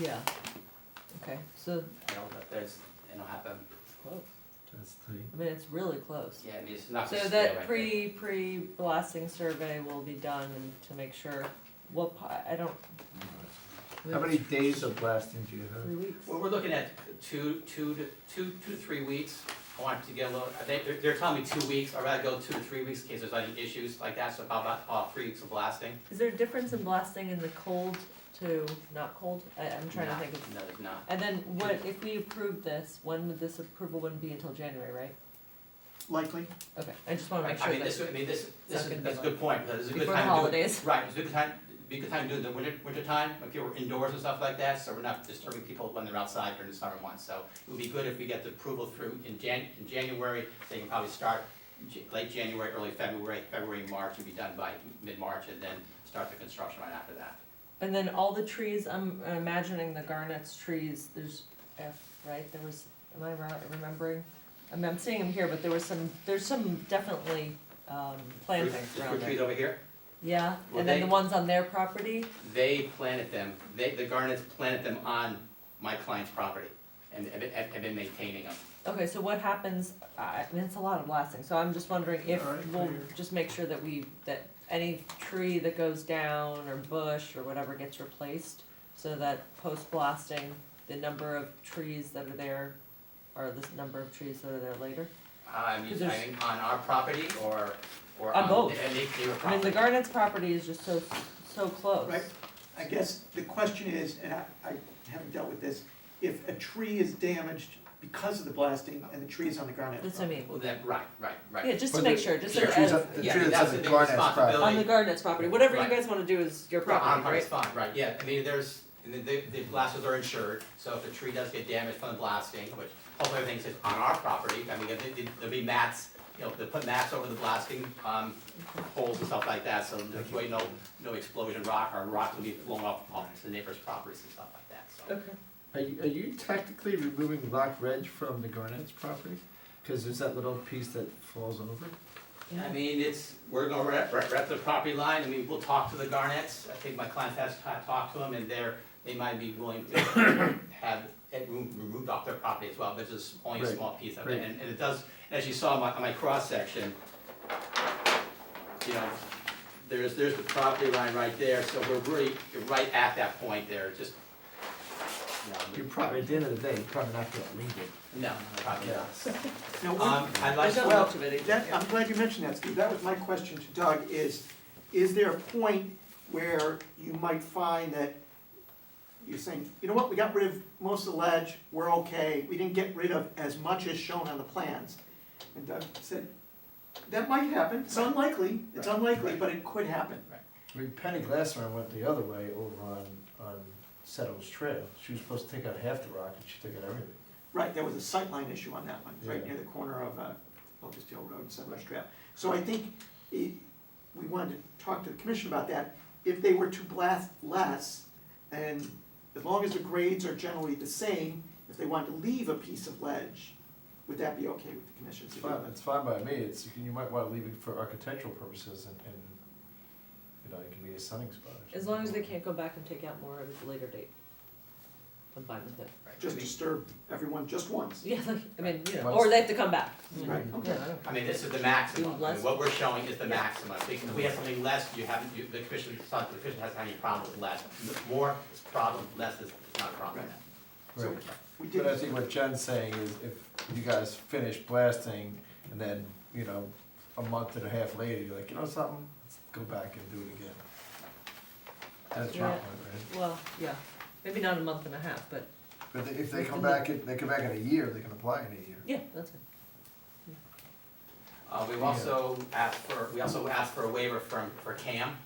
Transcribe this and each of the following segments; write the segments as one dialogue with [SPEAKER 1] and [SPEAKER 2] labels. [SPEAKER 1] yeah, okay, so,
[SPEAKER 2] you know, but there's, it'll happen.
[SPEAKER 1] close,
[SPEAKER 3] That's tight.
[SPEAKER 1] I mean, it's really close.
[SPEAKER 2] Yeah, I mean, it's not
[SPEAKER 1] So
[SPEAKER 2] just.
[SPEAKER 1] that pre, pre-blasting survey will be done and to make sure, what, pa- I don't, we
[SPEAKER 3] How
[SPEAKER 1] have
[SPEAKER 3] many days of blasting do you have?
[SPEAKER 1] three weeks.
[SPEAKER 2] Well, we're looking at two, two to, two, two to three weeks. I want to get a little, they, they're, they're telling me two weeks, I'd rather go two to three weeks in case there's any issues like that, so about, about, uh, three weeks of blasting.
[SPEAKER 1] Is there a difference in blasting in the cold to not cold? I, I'm trying to
[SPEAKER 2] No,
[SPEAKER 1] think of,
[SPEAKER 2] No, there's not.
[SPEAKER 1] and then what, if we approve this, when would this approval wouldn't be until January, right?
[SPEAKER 2] Likely.
[SPEAKER 1] Okay, I just wanna make
[SPEAKER 2] I
[SPEAKER 1] sure
[SPEAKER 2] mean, this,
[SPEAKER 1] that
[SPEAKER 2] I mean, this,
[SPEAKER 1] not
[SPEAKER 2] this,
[SPEAKER 1] gonna
[SPEAKER 2] is-
[SPEAKER 1] be
[SPEAKER 2] that's a good point, because it's a good
[SPEAKER 1] before the
[SPEAKER 2] time to do it.
[SPEAKER 1] holidays,
[SPEAKER 2] Right, it's a good time, be a good time to do it in the winter, winter time, when people are indoors and stuff like that, so we're not disturbing people when they're outside during the summer months. So it would be good if we get the approval through in Jan, in January, they can probably start in Ja- late January, early February, February, March, and be done by mid-March, and then start the construction right after that.
[SPEAKER 1] and then all the trees, I'm imagining the garnets trees, there's F, right, there was, am I right, remembering? I mean, I'm seeing them here, but there was some, there's some definitely, um,
[SPEAKER 2] Fruit-
[SPEAKER 1] plantings
[SPEAKER 2] the
[SPEAKER 1] around
[SPEAKER 2] Fruit trees
[SPEAKER 1] there.
[SPEAKER 2] over here,
[SPEAKER 1] Yeah,
[SPEAKER 2] Were
[SPEAKER 1] and then the
[SPEAKER 2] they-
[SPEAKER 1] ones on their property,
[SPEAKER 2] they planted them, they, the Garnets planted them on my client's property, and have been, have been maintaining them.
[SPEAKER 1] Okay, so what happens, I I mean, it's a lot of blasting, so I'm just wondering if
[SPEAKER 3] All right,
[SPEAKER 1] we'll
[SPEAKER 3] clear.
[SPEAKER 1] just make sure that we, that any tree that goes down or bush or whatever gets replaced, so that post-blasting, the number of trees that are there, or the number of trees that are there later.
[SPEAKER 2] Uh, I mean,
[SPEAKER 1] Because there's-
[SPEAKER 2] I mean, on our property, or, or
[SPEAKER 1] On
[SPEAKER 2] on,
[SPEAKER 1] both.
[SPEAKER 2] and they, they were property.
[SPEAKER 1] I mean, the Garnets property is just so, so close.
[SPEAKER 4] Right. I guess the question is, and I, I haven't dealt with this, if a tree is damaged because of the blasting and the tree is on the ground. at-
[SPEAKER 1] That's what I mean,
[SPEAKER 2] Well, then, right, right, right.
[SPEAKER 1] yeah, just to
[SPEAKER 3] But
[SPEAKER 1] make
[SPEAKER 3] the-
[SPEAKER 1] sure, just
[SPEAKER 2] the
[SPEAKER 1] as,
[SPEAKER 2] trees
[SPEAKER 1] as-
[SPEAKER 3] The
[SPEAKER 2] Yeah,
[SPEAKER 3] tree
[SPEAKER 2] that's
[SPEAKER 3] that's
[SPEAKER 2] the
[SPEAKER 3] in
[SPEAKER 2] big
[SPEAKER 3] Garnet's property.
[SPEAKER 1] on
[SPEAKER 2] responsibility.
[SPEAKER 1] the Garnets property, whatever you
[SPEAKER 2] Right.
[SPEAKER 1] guys wanna do is your
[SPEAKER 2] On
[SPEAKER 1] property,
[SPEAKER 2] private
[SPEAKER 1] right?
[SPEAKER 2] spot, right, yeah, I mean, there's, and the, the- the blasters are insured, so if the tree does get damaged from the blasting, which hopefully everything's just on our property, I mean, there- there'll be mats, you know, they'll put mats over the blasting, um, holes and stuff like that, so there's way no, no explosion rock, or rock will be blown off, off the neighbors' properties and stuff like that, so.
[SPEAKER 1] Okay.
[SPEAKER 3] Are you, are you technically removing Black Ridge from the Garnet's property? Cause there's that little piece that falls over.
[SPEAKER 2] I mean, it's, we're gonna rep, rep, rep the property line, I mean, we'll talk to the Garnets, I think my client has ta- talked to them, and they're, they might be willing to have it remo- removed off their property as well, but it's just only a
[SPEAKER 3] Right,
[SPEAKER 2] small piece of it,
[SPEAKER 3] right.
[SPEAKER 2] and, and it does, as you saw on my, on my cross-section, you know, there's, there's the property line right there, so we're really, you're right at that point there, just, you
[SPEAKER 3] You're probably, at the end of the day, you're probably not gonna leave it.
[SPEAKER 2] know, no, probably not.
[SPEAKER 4] Now, we-
[SPEAKER 2] Um, I'd
[SPEAKER 1] There's
[SPEAKER 2] like to.
[SPEAKER 1] not
[SPEAKER 4] Well,
[SPEAKER 1] much of it either,
[SPEAKER 4] that,
[SPEAKER 1] yeah.
[SPEAKER 4] I'm glad you mentioned that, Steve, that was my question to Doug, is, is there a point where you might find that you're saying, you know what, we got rid of most of the ledge, we're okay, we didn't get rid of as much as shown on the plans? And Doug said, that might happen, it's unlikely, it's
[SPEAKER 2] Right,
[SPEAKER 4] unlikely,
[SPEAKER 2] right.
[SPEAKER 4] but it could happen.
[SPEAKER 3] I mean, Penny Glassman went the other way over on, on Settles Trail. She was supposed to take out half the rock and she took out everything.
[SPEAKER 4] Right, there was a sightline issue on that one, right
[SPEAKER 3] Yeah.
[SPEAKER 4] near the corner of uh, Locust Hill Road and Settlers Trail. So I think i- we wanted to talk to the commission about that. If they were to blast less, and as long as the grades are generally the same, if they wanted to leave a piece of ledge, would that be okay with the commission? to
[SPEAKER 3] It's
[SPEAKER 4] do
[SPEAKER 3] fine,
[SPEAKER 4] that?
[SPEAKER 3] it's fine by me, it's, you can- you might wanna leave it for architectural purposes and, and, you know, it can be a sunning spot or
[SPEAKER 1] As long as they
[SPEAKER 3] something.
[SPEAKER 1] can't go back and take out more at a later date. I'm fine with it.
[SPEAKER 2] Right, I
[SPEAKER 4] Just
[SPEAKER 2] mean-
[SPEAKER 4] disturb everyone just once.
[SPEAKER 1] Yeah, like, I mean, you know,
[SPEAKER 3] Once-
[SPEAKER 1] or they have to come back.
[SPEAKER 4] Right, okay.
[SPEAKER 1] Yeah, I don't-
[SPEAKER 2] I mean, this is the maximum,
[SPEAKER 1] Even
[SPEAKER 2] I
[SPEAKER 1] less?
[SPEAKER 2] mean, what we're showing is the maximum, because if we have something less, you haven't, you, the commission, it's not- the commission hasn't had any problem with less. More is problem, less is is not a problem.
[SPEAKER 4] So
[SPEAKER 3] Right.
[SPEAKER 4] we did,
[SPEAKER 3] But I think what Jen's saying is if you guys finish blasting and then, you know, a month and a half later, you're like, you know something, let's go back and do it again. That's your
[SPEAKER 1] Yeah.
[SPEAKER 3] point, right?
[SPEAKER 1] Well, yeah, maybe not a month and a half, but
[SPEAKER 3] But they- if they come back, in- they come back in a year, they can apply in a year.
[SPEAKER 1] yeah, that's fine.
[SPEAKER 2] Uh, we've also asked for, we also asked for a waiver from, for CAM,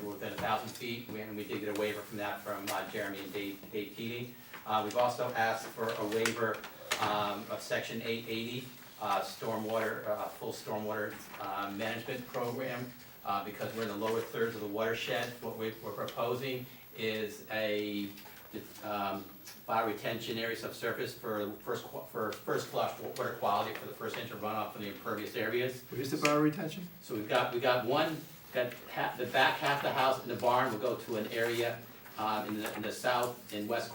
[SPEAKER 2] we were within a thousand feet, we- and we did get a waiver from that from uh, Jeremy and Dave, Dave Keating. Uh, we've also asked for a waiver, um, of section eight eighty, uh, stormwater, uh, full stormwater, uh, management program, uh, because we're in the lower thirds of the watershed, what we, we're proposing is a, um, bioretention area subsurface for first, qu- for first flush water quality for the first inch of runoff from the impervious areas.
[SPEAKER 3] What is the bio retention?
[SPEAKER 2] So we've got, we got one, got half, the back half of the house and the barn will go to an area, uh, in the, in the south and west